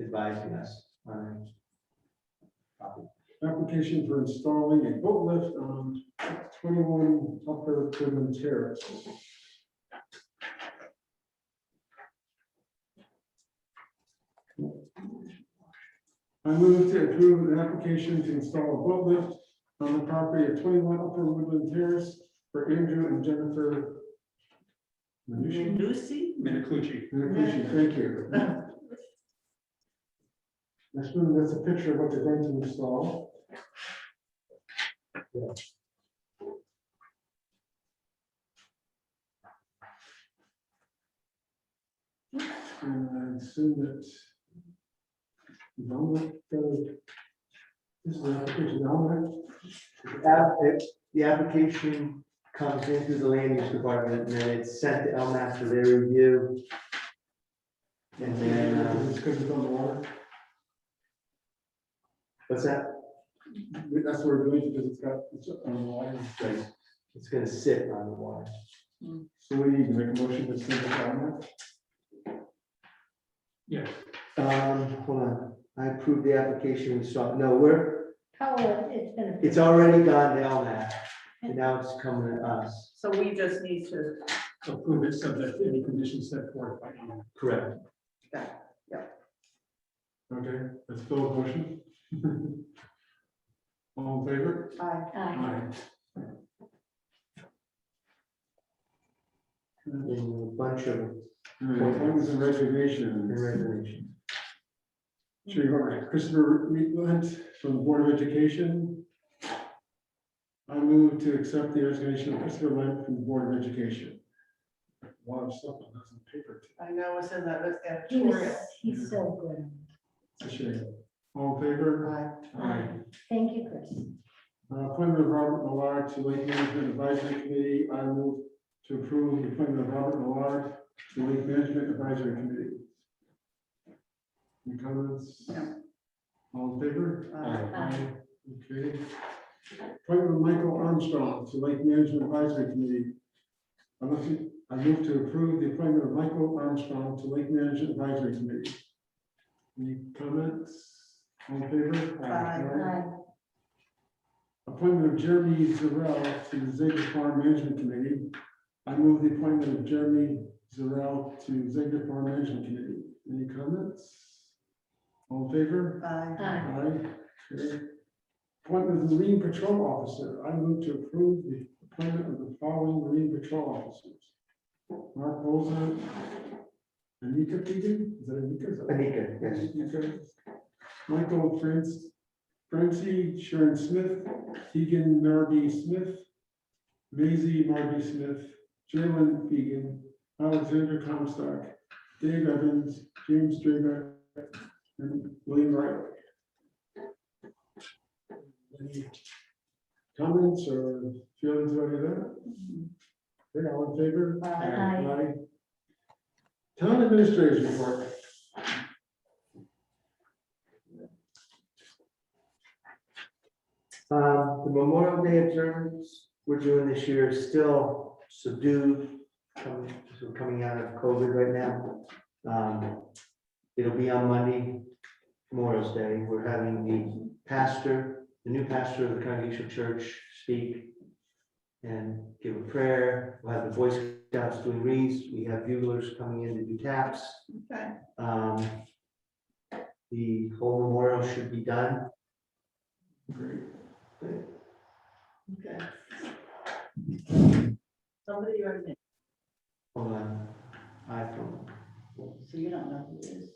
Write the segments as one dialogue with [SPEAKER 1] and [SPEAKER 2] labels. [SPEAKER 1] advising us on
[SPEAKER 2] Application for installing a boat lift on twenty-one upper Quinlan Terrace. I move to approve an application to install a boat lift on the property at twenty-one upper Woodland Terrace for Andrew and Jennifer. Minucci?
[SPEAKER 3] Lucy?
[SPEAKER 1] Minicucci.
[SPEAKER 2] Minucci, thank you. I assume that's a picture of what they're going to install. And I assume that. Dominic, uh, This is the application, Dominic.
[SPEAKER 1] The app- it- The application comes in through the land use department, and then it's sent to LMAS for their review. And then, uh,
[SPEAKER 2] It's because it's on the water.
[SPEAKER 1] what's that?
[SPEAKER 2] That's where it goes because it's got, it's on the water.
[SPEAKER 1] It's gonna sit on the water.
[SPEAKER 2] So we need to make a motion to send it down
[SPEAKER 1] Um, hold on, I approved the application, we saw, no, we're,
[SPEAKER 4] Oh, it's been.
[SPEAKER 1] it's already gone to LMAS, and now it's coming to us.
[SPEAKER 3] So we just need to,
[SPEAKER 2] Approve it subject to any conditions set forth by you.
[SPEAKER 1] Correct.
[SPEAKER 2] Okay, let's go a motion. All in favor?
[SPEAKER 3] I,
[SPEAKER 4] Aye.
[SPEAKER 1] In a bunch of
[SPEAKER 2] Appointments and reservations.
[SPEAKER 1] regulations.
[SPEAKER 2] Sure, you're right. Christopher Wheatland from the Board of Education. I move to accept the resignation of Christopher Lent from the Board of Education. A lot of stuff on this on paper.
[SPEAKER 3] I know it's in that, it's
[SPEAKER 4] He was,
[SPEAKER 3] editorial.
[SPEAKER 4] he's so good.
[SPEAKER 2] It's a shame. All in favor?
[SPEAKER 3] Aye.
[SPEAKER 2] Aye.
[SPEAKER 4] Thank you, Chris.
[SPEAKER 2] Uh, Appointment of Robert Millard to Lake Management Advisory Committee. I move to approve the appointment of Robert Millard to Lake Management Advisory Committee. Any comments?
[SPEAKER 3] No.
[SPEAKER 2] All in favor?
[SPEAKER 3] Aye.
[SPEAKER 4] Aye.
[SPEAKER 2] Okay. Appointment of Michael Armstrong to Lake Management Advisory Committee. I move, I move to approve the appointment of Michael Armstrong to Lake Management Advisory Committee. Any comments? All in favor?
[SPEAKER 3] Aye.
[SPEAKER 4] Aye.
[SPEAKER 2] Appointment of Jeremy Zarell to the Zeta Farm Management Committee. I move the appointment of Jeremy Zarell to Zeta Farm Management Committee. Any comments? All in favor?
[SPEAKER 3] Aye.
[SPEAKER 4] Aye.
[SPEAKER 2] Aye. Okay. Appointment of the Marine Patrol Officer. I move to approve the appointment of the following Marine Patrol Officers. Mark Boza. Anika Keegan, is that Anika?
[SPEAKER 1] Anika, yes.
[SPEAKER 2] Okay. Michael France, Francie Sharon Smith, Keegan Marby Smith, Maisie Marby Smith, Jalen Fegan, Alexander Comstock, Dave Evans, James Draper, and William Riley. Any Comments or feelings about any of that? Okay, all in favor?
[SPEAKER 4] Aye.
[SPEAKER 2] Aye. Town administration report.
[SPEAKER 1] Uh, The Memorial Day observance we're doing this year is still subdued, coming, so coming out of COVID right now. Um, It'll be on Monday, Memorial Day. We're having the pastor, the new pastor of the Congregational Church speak and give a prayer. We'll have the Boy Scouts doing reads. We have buglers coming in to do taps.
[SPEAKER 3] Okay.
[SPEAKER 1] Um, The whole memorial should be done
[SPEAKER 2] Great.
[SPEAKER 3] Okay. Somebody already, did,
[SPEAKER 1] on an iPhone.
[SPEAKER 3] so you don't know who it is.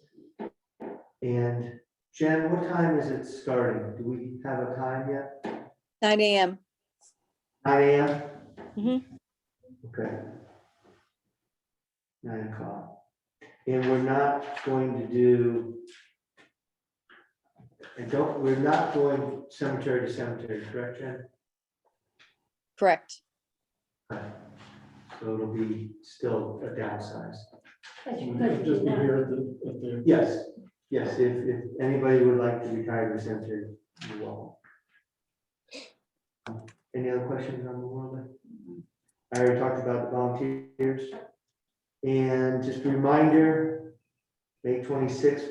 [SPEAKER 1] And Jen, what time is it starting? Do we have a time yet?
[SPEAKER 5] Nine AM.
[SPEAKER 1] Nine AM?
[SPEAKER 5] Mhm.
[SPEAKER 1] Okay. Nine o'clock. And we're not going to do. I don't, we're not going cemetery to cemetery, correct, Jen?
[SPEAKER 5] Correct.
[SPEAKER 1] So it'll be still a downsize.
[SPEAKER 4] But you
[SPEAKER 2] Just
[SPEAKER 4] could do
[SPEAKER 2] be
[SPEAKER 4] that.
[SPEAKER 2] here at the, at the.
[SPEAKER 1] Yes, yes, if, if anybody would like to retire to cemetery, you're welcome. Any other questions on the Memorial Day? I already talked about the volunteers. And just a reminder, May twenty-sixth,